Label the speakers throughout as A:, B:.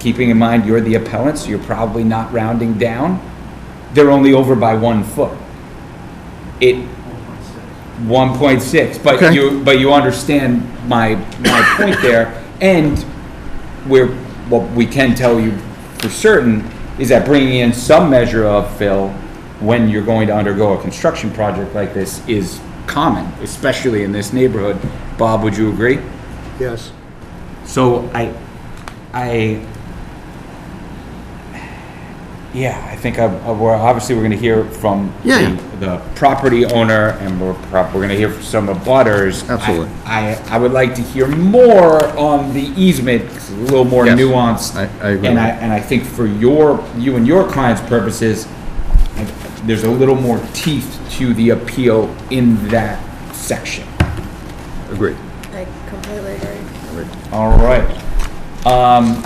A: keeping in mind you're the appellant, so you're probably not rounding down, they're only over by one foot. It, 1.6, but
B: Okay.
A: you, but you understand my, my point there. And where, what we can tell you for certain is that bringing in some measure of fill when you're going to undergo a construction project like this is common, especially in this neighborhood. Bob, would you agree?
B: Yes.
A: So I, I, yeah, I think I, I- we're, obviously, we're gonna hear from
B: Yeah, yeah.
A: the- the property owner, and we're prob, we're gonna hear from some of butters.
B: Absolutely.
A: I, I I would like to hear more on the easement, 'cause it's a little more
B: Yes,
A: nuanced.
B: I- I agree.
A: And I, and I think for your, you and your client's purposes, I- there's a little more teeth to the appeal in that section.
B: Agreed.
C: I completely agree.
A: All right. Um,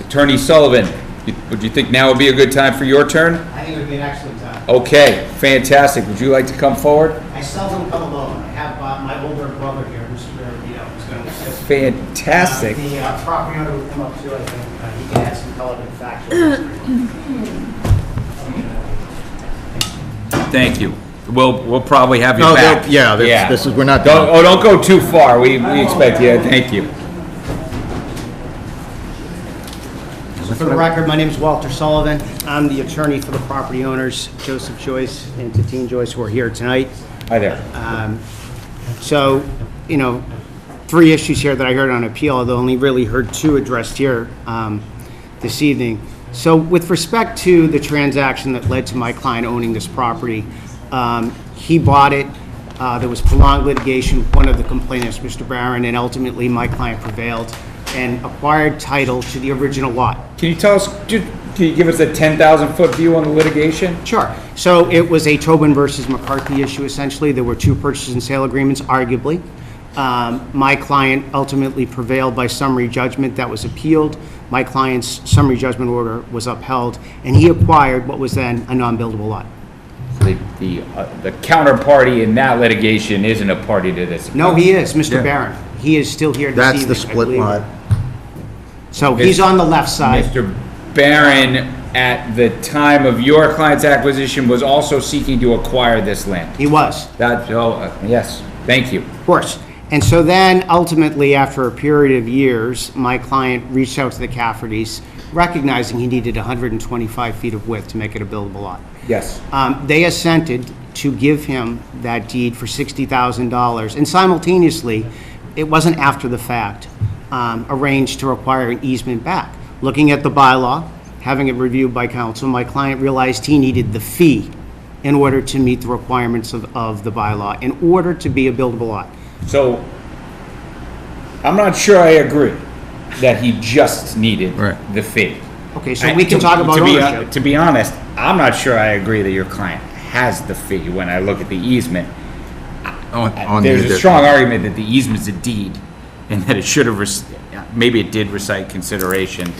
A: Attorney Sullivan, you- would you think now would be a good time for your turn?
D: I think it would be an excellent time.
A: Okay, fantastic. Would you like to come forward?
D: I seldom come alone. I have uh, my older brother here, Mr. Maravito, who's going to assist. me.
A: Fantastic.
D: Uh, The uh, property owner will come up too, I think. uh, He can add some color and factual.
A: Thank you. We'll, we'll probably have you
B: No,
A: back.
B: they'll- yeah, that's- this is- we're not
A: Don't,
B: done.
A: oh, don't go too far. We, we expect you. Thank you.
D: So for the record, my name is Walter Sullivan. I'm the attorney for the property owners, Joseph Joyce and Tatine Joyce, who are here tonight.
A: Hi there.
D: Um, So, you know, three issues here that I heard on appeal, although only really heard two addressed here um, this evening. So with respect to the transaction that led to my client owning this property, um, he bought it, uh, there was prolonged litigation, one of the complainants, Mr. Barron, and ultimately my client prevailed and acquired title to the original lot.
A: Can you tell us, ju- can you give us a 10,000-foot view on the litigation?
D: Sure. So it was a Tobin versus McCarthy issue essentially. There were two purchase and sale agreements, arguably. Um, My client ultimately prevailed by summary judgment that was appealed. My client's summary judgment order was upheld, and he acquired what was then a non-buildable lot.
A: The, the uh, the counterparty in that litigation isn't a party to this.
D: No, he is, Mr.
B: Yeah.
D: Barron. He is still here this
B: That's
D: evening.
B: the
D: I
B: split
D: believe.
B: lot.
D: So he's on the left side.
A: Mr. Barron, at the time of your client's acquisition, was also seeking to acquire this land.
D: He was.
A: That, oh, uh, yes, thank you.
D: Of course. And so then ultimately, after a period of years, my client reached out to the Caffertys, recognizing he needed 125 feet of width to make it a buildable lot.
A: Yes.
D: Um, They assented to give him that deed for $60,000, and simultaneously, it wasn't after the fact, um, arranged to require an easement back. Looking at the bylaw, having it reviewed by council, my client realized he needed the fee in order to meet the requirements of of the bylaw, in order to be a buildable lot.
A: So, I'm not sure I agree that he just needed
B: Right.
A: the fee.
D: Okay, so we can
A: I- to-
D: talk about
A: to be uh, hon-
D: ownership.
A: To be honest, I'm not sure I agree that your client has the fee when I look at the easement.
B: On- on the
A: Oh, There's a
B: addition.
A: strong argument that the easement's a deed, and that it should have, rec- maybe it did recite consideration,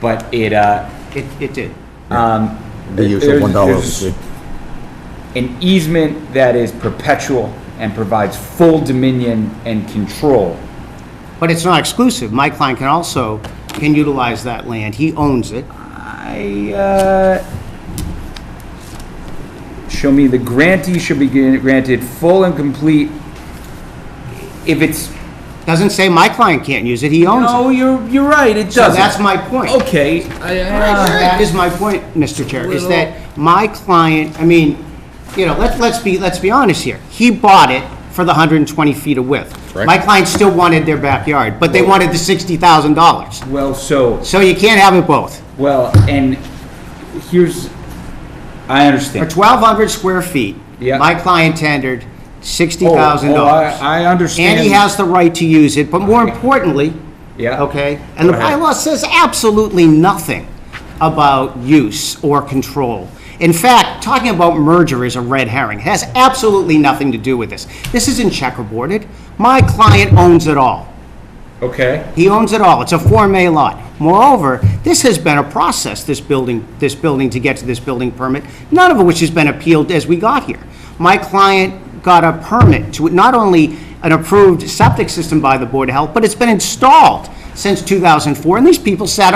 A: but it, uh,
D: It, it did.
B: The use
A: There's-
B: of one dollar.
A: there's- an easement that is perpetual and provides full dominion and control.
D: But it's not exclusive. My client can also, can utilize that land. He owns it.
A: I, uh, show me the grantee should be gran- granted full and complete, if it's,
D: Doesn't say my client can't use it, he owns it.
A: no, you're, you're right, it
D: So
A: doesn't. Oh,
D: that's my point.
A: Okay, I, uh,
D: That is my point, Mr. Chair, is that my client, I mean, you know, let's, let's be, let's be honest here. He bought it for the 120 feet of width.
B: right.
D: My client still wanted their backyard, but they wanted the $60,000.
A: well, so,
D: So you can't have it both.
A: well, and here's, I
D: For
A: understand.
D: 1,200 square feet,
A: Yeah.
D: my client tendered
A: Oh, oh,
D: $60,000.
A: I, I understand.
D: And he has the right to use it, but more importantly,
A: Yeah.
D: okay, and the
A: Go ahead.
D: bylaw says absolutely nothing about use or control. In fact, talking about merger is a red herring. It has absolutely nothing to do with this. This isn't checkerboarded. My client owns it all.
A: Okay,
D: He owns it all. It's a Form A lot. Moreover, this has been a process, this building, this building, to get to this building permit, none of which has been appealed as we got here. My client got a permit to, not only an approved septic system by the Board of Health, but it's been installed since 2004, and these people sat